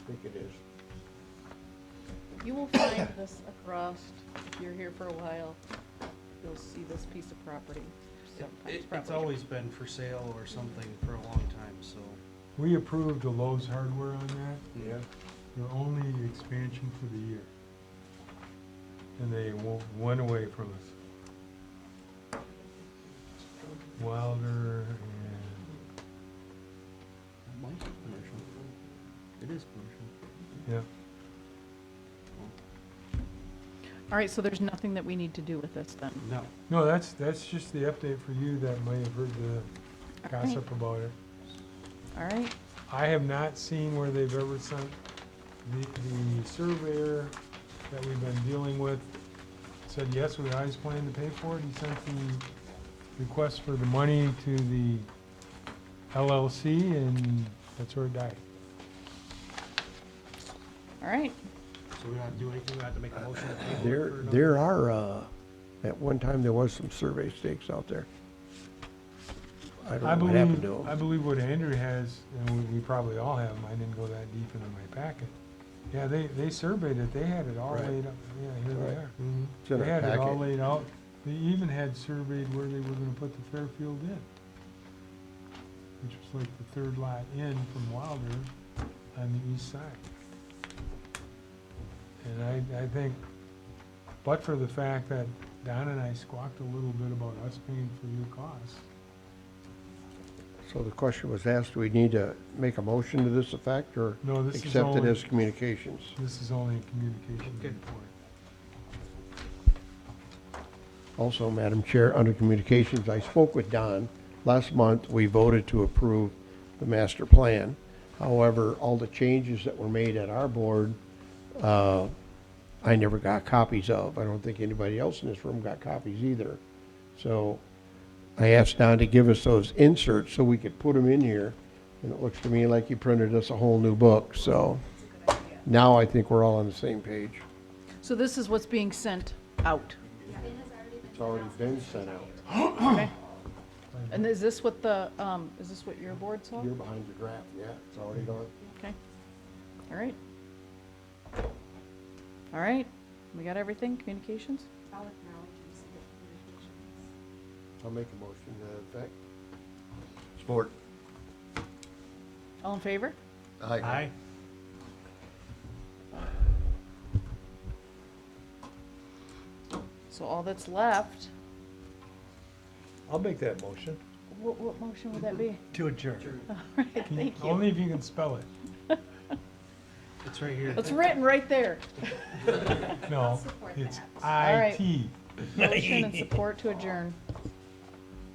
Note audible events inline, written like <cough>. You will find this across, if you're here for a while, you'll see this piece of property. sometimes It, it's property. always been for sale or something for a long time, so. We approved the Lowe's hardware on that, Yeah. their only expansion for the year. And they wa- went away from us. Wilder and, Mine's commercial. It is commercial. yeah, All right, so there's nothing that we need to do with this then? No, no, that's, that's just the update for you that may have heard the All right. gossip about it. All right, I have not seen where they've ever sent the, the surveyor that we've been dealing with said, yes, we always plan to pay for it. He sent the request for the money to the LLC and that's where it died. all right. so we don't have to do anything, we don't have to make a motion. to table it There, for another- there are, uh, at one time, there was some survey stakes out there. I I don't know what happened believe, to I them. believe what Andrew has, and we, we probably all have, 'em, I didn't go that deep into my packet. Yeah, they, they surveyed it, they had it all Right. laid out, yeah, here they Right. are. Mm-hmm. It's in They our had it all packet. laid out. They even had surveyed where they were gonna put the Fairfield in. Which was like the third lot in from Wilder on the east side. And I, I think, but for the fact that Don and I squawked a little bit about us paying for your costs, So the question was asked, do we need to make a motion to this effect or no, this is accept it only, as communications? this is only a communication Okay. report. Also, Madam Chair, under communications, I spoke with Don. Last month, we voted to approve the master plan. However, all the changes that were made at our board, uh, I never got copies of. I don't think anybody else in this room got copies either. So I asked Don to give us those inserts so we could put them in here. And it looks to me like he printed us a whole new book, so now I think we're all on the same page. So this is what's being sent out, It's already been sent out. okay? And is this what the, um, is this what your board saw? You're behind the graph, yeah, it's already gone. Okay, all right. All right, we got everything, communications? I'll acknowledge you sent it communications. I'll make a motion to that effect. Support. All in favor? Aye. So all that's left, I'll make that motion. what, what motion would that be? <laughs> To adjourn. All right, Can you- thank you. Only if you can spell <laughs> it. It's right here. It's written right there. No, support it's that. I T. Motion and support to adjourn.